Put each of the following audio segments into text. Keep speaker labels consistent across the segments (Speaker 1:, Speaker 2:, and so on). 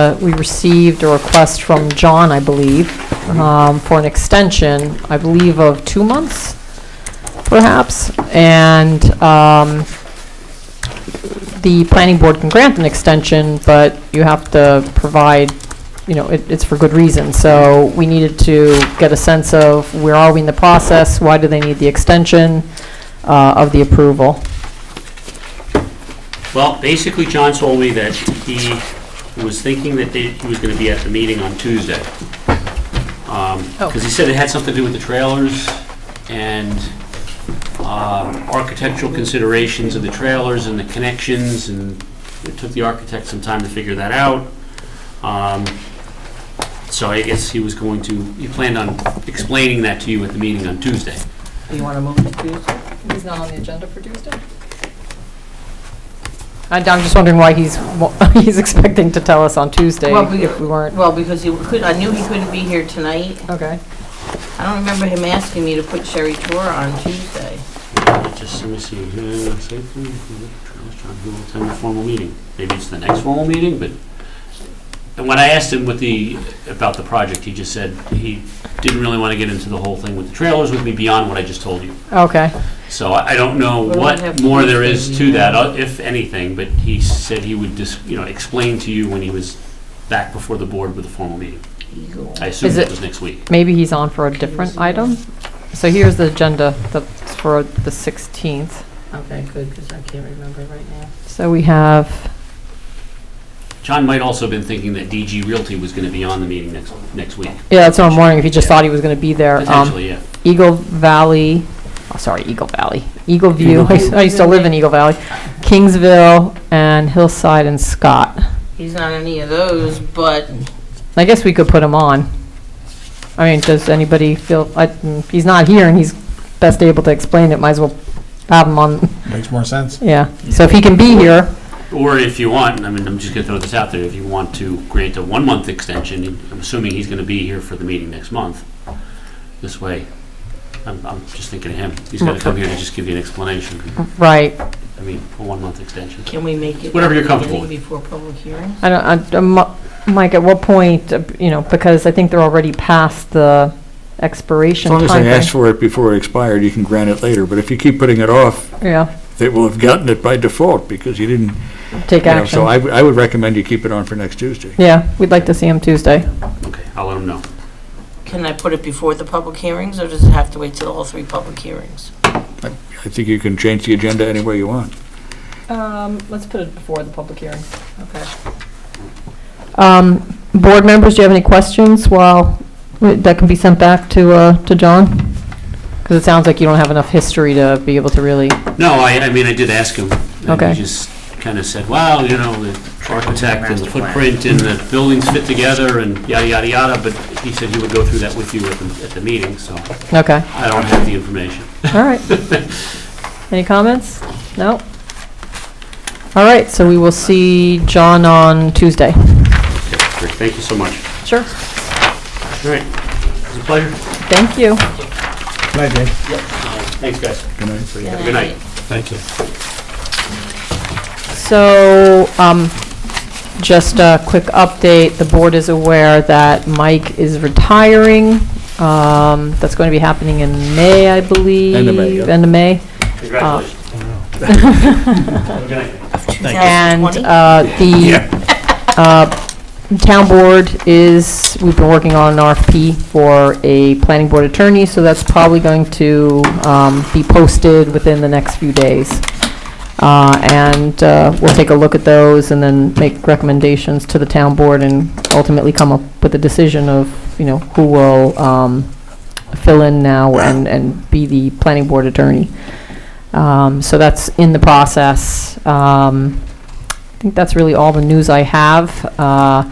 Speaker 1: uh, we received a request from John, I believe, um, for an extension, I believe of two months, perhaps, and um, the planning board can grant an extension, but you have to provide, you know, it- it's for good reason. So we needed to get a sense of where are we in the process, why do they need the extension uh, of the approval?
Speaker 2: Well, basically, John told me that he was thinking that they- he was going to be at the meeting on Tuesday.
Speaker 1: Oh.
Speaker 2: Because he said it had something to do with the trailers and um, architectural considerations of the trailers and the connections, and it took the architect some time to figure that out. Um, So I guess he was going to, he planned on explaining that to you at the meeting on Tuesday.
Speaker 3: Do you want to move to Tuesday?
Speaker 1: He's not on the agenda for Tuesday? I'm just wondering why he's, wa- he's expecting to tell us on Tuesday
Speaker 3: Well, we-
Speaker 1: if we weren't.
Speaker 3: Well, because he could, I knew he couldn't be here tonight.
Speaker 1: Okay.
Speaker 3: I don't remember him asking me to put Sherry Tour on Tuesday.
Speaker 2: Just, let me see, uh, site plan, Travis John Hill, attend the formal meeting. Maybe it's the next formal meeting, but, and when I asked him with the, about the project, he just said he didn't really want to get into the whole thing with the trailers with me beyond what I just told you.
Speaker 1: Okay,
Speaker 2: So I I don't know
Speaker 3: Well, we
Speaker 2: what
Speaker 3: have
Speaker 2: more there
Speaker 3: Tuesday,
Speaker 2: is to
Speaker 3: yeah.
Speaker 2: that, uh, if anything, but he said he would just, you know, explain to you when he was back before the board with the formal meeting.
Speaker 3: Eagle.
Speaker 2: I assume
Speaker 1: Is
Speaker 2: it
Speaker 1: it-
Speaker 2: was next week.
Speaker 1: maybe he's on for a different item? So here's the agenda that's for the 16th.
Speaker 3: Okay, good, because I can't remember right now.
Speaker 1: So we have,
Speaker 2: John might also have been thinking that DG Realty was going to be on the meeting next, next week,
Speaker 1: yeah, that's what I'm wondering, if he just thought he was going to be there. Um,
Speaker 2: potentially, yeah.
Speaker 1: Eagle Valley, oh, sorry, Eagle Valley, Eagle View, I used- I used to live in Eagle Valley, Kingsville, and Hillside and Scott.
Speaker 3: He's not any of those, but
Speaker 1: I guess we could put him on. I mean, does anybody feel, I- mm, he's not here and he's best able to explain it, might as well have him on,
Speaker 4: Makes more sense.
Speaker 1: yeah. So if he can be here,
Speaker 2: Or if you want, I mean, I'm just gonna throw this out there, if you want to grant a one-month extension, I'm assuming he's gonna be here for the meeting next month. This way, I'm, I'm just thinking of him. He's gonna come here to just give you an explanation.
Speaker 1: right,
Speaker 2: I mean, a one-month extension.
Speaker 3: can we make it?
Speaker 2: Whatever you're comfortable with.
Speaker 3: Before public hearing?
Speaker 1: I don't, I- uh, Mi- Mike, at what point, uh, you know, because I think they're already past the
Speaker 5: As
Speaker 1: expiration
Speaker 5: long as they ask
Speaker 1: timeframe.
Speaker 5: for it before it expired, you can grant it later, but if you keep putting it off,
Speaker 1: Yeah,
Speaker 5: they will have gotten it by default because you didn't,
Speaker 1: take
Speaker 5: you know, so
Speaker 1: action.
Speaker 5: I, w- I would recommend you keep it on for next Tuesday.
Speaker 1: Yeah, we'd like to see him Tuesday.
Speaker 2: Okay, I'll let him know.
Speaker 3: Can I put it before the public hearings, or does it have to wait till all three public hearings?
Speaker 5: I think you can change the agenda any way you want.
Speaker 1: Um, let's put it before the public hearing.
Speaker 3: Okay.
Speaker 1: Um, board members, do you have any questions while, that can be sent back to, uh, to John? Because it sounds like you don't have enough history to be able to really,
Speaker 2: No, I, I mean, I did ask him.
Speaker 1: Okay.
Speaker 2: And he just kinda said, well, you know, the architect and the footprint and the buildings fit together and yada, yada, yada, but he said he would go through that with you at the, at the meeting, so
Speaker 1: okay,
Speaker 2: I don't have the information.
Speaker 1: all right. Any comments? No? All right, so we will see John on Tuesday.
Speaker 2: Okay, great, thank you so much.
Speaker 1: Sure.
Speaker 2: All right, it was a pleasure.
Speaker 1: Thank you.
Speaker 4: Can I, Dave?
Speaker 2: Thanks, guys.
Speaker 5: Good night.
Speaker 2: Have a good night.
Speaker 4: Thank you.
Speaker 1: So, um, just a quick update, the board is aware that Mike is retiring. Um, that's going to be happening in May, I believe.
Speaker 5: End of May, yeah.
Speaker 1: End of May.
Speaker 2: Congratulations. Have a good night.
Speaker 1: And,
Speaker 3: 2020?
Speaker 1: uh, the, uh, town board is, we've been working on an RFP for a planning board attorney, so that's probably going to, um, be posted within the next few days. Uh, and, uh, we'll take a look at those and then make recommendations to the town board and ultimately come up with a decision of, you know, who will, um, fill in now and, and be the planning board attorney. Um, So that's in the process. Um, I think that's really all the news I have. Uh,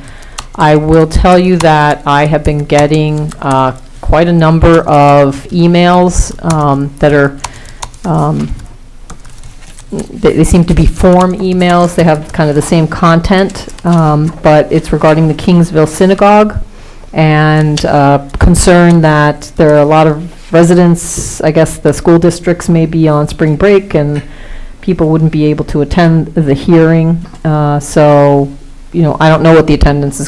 Speaker 1: I will tell you that I have been getting uh, quite a number of emails um, that are, um, they they seem to be form emails, they have kind of the same content, um, but it's regarding the Kingsville Synagogue and uh, concern that there are a lot of residents, I guess the school districts may be on spring break and people wouldn't be able to attend the hearing. Uh, So you know, I don't know what the attendance is